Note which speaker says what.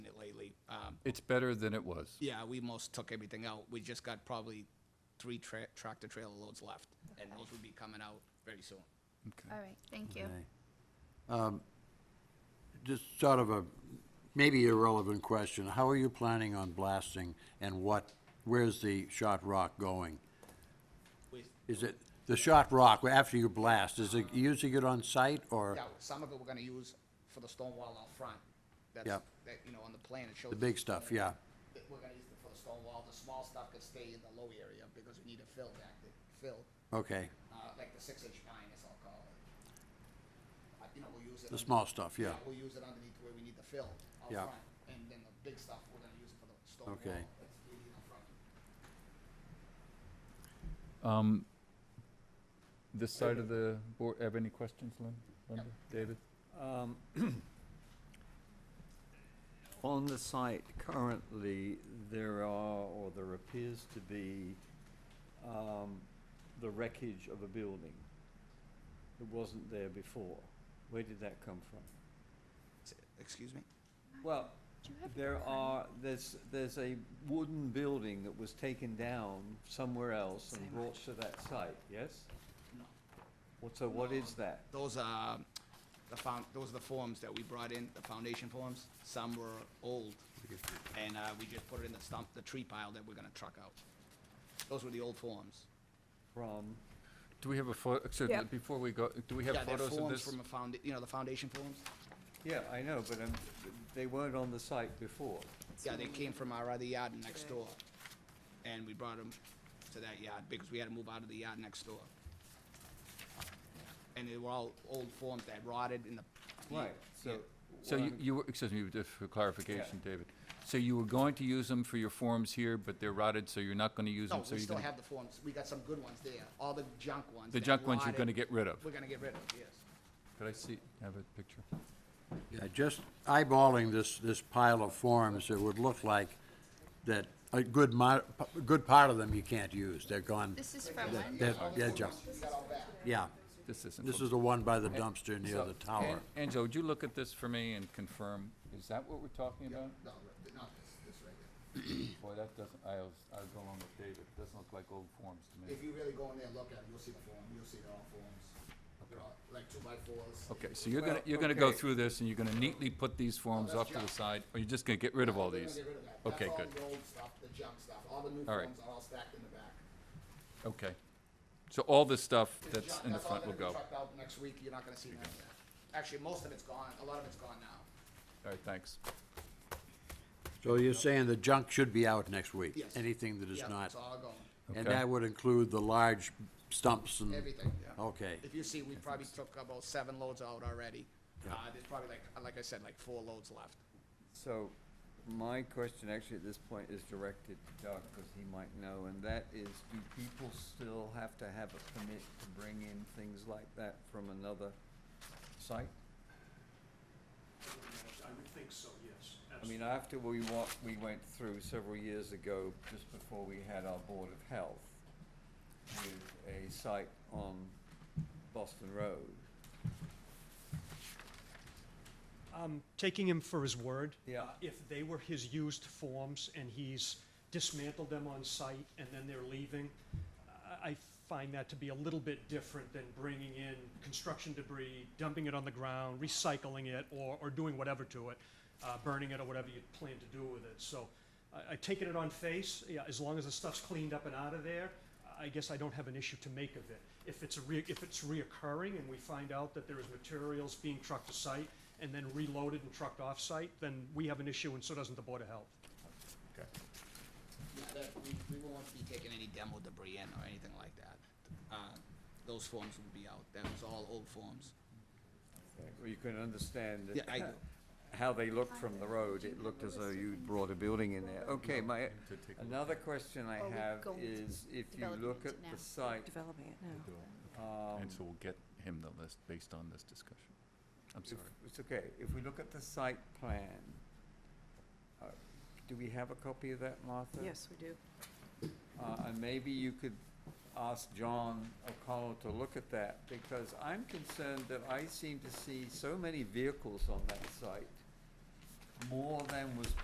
Speaker 1: It's better than it was.
Speaker 2: Um, Yeah, we most took everything out. We just got probably three tra- tractor trailer loads left, and those will be coming out very soon.
Speaker 1: Okay.
Speaker 3: All right, thank you.
Speaker 4: Okay. Um, Just sort of a, maybe irrelevant question, how are you planning on blasting and what, where's the shot rock going?
Speaker 2: With,
Speaker 4: Is it, the shot rock, after you blast, is it using it on site or
Speaker 2: yeah, some of it we're gonna use for the stone wall out front. That's-
Speaker 4: Yep.
Speaker 2: That, you know, on the plan it shows.
Speaker 4: the big stuff, yeah?
Speaker 2: that We're gonna use it for the stone wall. The small stuff could stay in the low area because we need to fill back, the fill,
Speaker 4: Okay,
Speaker 2: uh, like the six inch pine, as I'll call it. Uh, You know, we'll use it.
Speaker 4: the
Speaker 2: under-
Speaker 4: small stuff, yeah,
Speaker 2: We'll use it underneath where we need the fill out
Speaker 4: Yeah.
Speaker 2: front, and then the big stuff, we're gonna use it for the stone wall.
Speaker 4: Okay.
Speaker 2: that's we need out front.
Speaker 1: Um, This side of the board, have any questions, Lynn? Linda? David?
Speaker 5: Um, On the site currently, there are, or there appears to be, um, the wreckage of a building. It wasn't there before. Where did that come from?
Speaker 2: Excuse me?
Speaker 5: Well,
Speaker 3: Do you have
Speaker 5: there are, there's, there's a wooden building that was taken down somewhere else and brought to that site, yes?
Speaker 2: No.
Speaker 5: What, so what is that?
Speaker 2: Those are the found, those are the forms that we brought in, the foundation forms. Some were old, and uh, we just put it in the stump, the tree pile that we're gonna truck out. Those were the old forms.
Speaker 5: From,
Speaker 1: Do we have a photo,
Speaker 3: Yeah.
Speaker 1: before we go, do we have
Speaker 2: Yeah, they're
Speaker 1: photos of
Speaker 2: forms
Speaker 1: this?
Speaker 2: from a found, you know, the foundation forms?
Speaker 5: yeah, I know, but um, they weren't on the site before.
Speaker 2: Yeah, they came from our other yard next door, and we brought them to that yard because we had to move out of the yard next door. And they were all old forms that rotted in the.
Speaker 5: Right, so.
Speaker 1: So
Speaker 5: what
Speaker 1: you,
Speaker 5: I'm-
Speaker 1: you, were- excuse me, just for clarification, David. So you were going to use them for your forms here, but they're rotted, so you're not gonna use them,
Speaker 2: No,
Speaker 1: so
Speaker 2: we
Speaker 1: you're
Speaker 2: still
Speaker 1: gonna.
Speaker 2: have the forms. We got some good ones there, all the junk ones.
Speaker 1: The
Speaker 2: that
Speaker 1: junk ones you're
Speaker 2: rotted,
Speaker 1: gonna get rid of.
Speaker 2: We're gonna get rid of, yes.
Speaker 1: Could I see, have a picture?
Speaker 4: Yeah, just eyeballing this, this pile of forms, it would look like that a good mo, a good part of them you can't use, they're gone,
Speaker 3: This is from
Speaker 4: they're,
Speaker 3: when?
Speaker 4: they're- they're junk. Yeah,
Speaker 1: This isn't.
Speaker 4: this
Speaker 1: from-
Speaker 4: is the one by the dumpster near
Speaker 1: So,
Speaker 4: the tower.
Speaker 1: An- Angelo, would you look at this for me and confirm, is that what we're talking about?
Speaker 2: No, not this, this right there.
Speaker 1: Boy, that doesn't, I'll, I'll go along with David, it doesn't look like old forms to me.
Speaker 2: If you really go in there and look at it, you'll see the form, you'll see they're all forms. They're all, like two by fours.
Speaker 1: Okay, so you're gonna, you're gonna go
Speaker 5: okay.
Speaker 1: through this, and you're gonna neatly put these forms off to the side, or you're just gonna get rid of all
Speaker 2: We're gonna
Speaker 1: these?
Speaker 2: get rid of that.
Speaker 1: Okay, good,
Speaker 2: That's all the old stuff, the junk stuff. All the new
Speaker 1: All right.
Speaker 2: forms are all stacked in the back.
Speaker 1: okay. So all this stuff
Speaker 2: The
Speaker 1: that's
Speaker 2: junk-
Speaker 1: in the front will
Speaker 2: That's all
Speaker 1: go.
Speaker 2: gonna be trucked out next week, you're not gonna see none of that. Actually, most of it's gone, a lot of it's gone now.
Speaker 1: All right, thanks.
Speaker 4: So you're saying the junk should be out next week?
Speaker 2: Yes.
Speaker 4: Anything that is
Speaker 2: Yeah,
Speaker 4: not,
Speaker 2: it's all gone,
Speaker 4: and
Speaker 1: Okay.
Speaker 4: that would include the large stumps and?
Speaker 2: everything,
Speaker 1: Oh,
Speaker 2: yeah.
Speaker 4: Okay,
Speaker 2: If you see, we probably took about seven loads out already.
Speaker 4: Yeah.
Speaker 2: Uh, there's probably like, like I said, like four loads left.
Speaker 5: So, my question actually at this point is directed to Doug, because he might know, and that is, do people still have to have a permit to bring in things like that from another site?
Speaker 6: I would think so, yes.
Speaker 5: I mean, after we wa- we went through several years ago, just before we had our Board of Health, with a site on Boston Road.
Speaker 6: I'm Um, taking him for his word.
Speaker 5: Yeah.
Speaker 6: Uh, If they were his used forms and he's dismantled them on site and then they're leaving, I, I find that to be a little bit different than bringing in construction debris, dumping it on the ground, recycling it, or, or doing whatever to it, uh, burning it or whatever you plan to do with it. So I, I taken it on face, yeah, as long as the stuff's cleaned up and out of there, I guess I don't have an issue to make of it. If it's a re, if it's reoccurring and we find out that there is materials being trucked to site and then reloaded and trucked off-site, then we have an issue and so doesn't the Board of Health.
Speaker 2: Yeah, that, we, we won't be taking any demo debris in or anything like that. Uh, Those forms will be out, that was all old forms.
Speaker 5: Well, you can understand
Speaker 2: Yeah, I do.
Speaker 5: how they looked from the road. It looked as though you'd brought a building in there. Okay, my, another question I
Speaker 3: Are we
Speaker 5: have
Speaker 3: going to
Speaker 5: is if you
Speaker 3: developing
Speaker 5: look
Speaker 3: it
Speaker 5: at
Speaker 3: now?
Speaker 5: the site,
Speaker 7: developing it now.
Speaker 5: um,
Speaker 1: And so we'll get him the list based on this discussion. I'm
Speaker 5: if-
Speaker 1: sorry.
Speaker 5: it's okay, if we look at the site plan, uh, do we have a copy of that, Martha?
Speaker 7: Yes, we do.
Speaker 5: Uh, and maybe you could ask John O'Connell to look at that, because I'm concerned that I seem to see so many vehicles on that site, more than was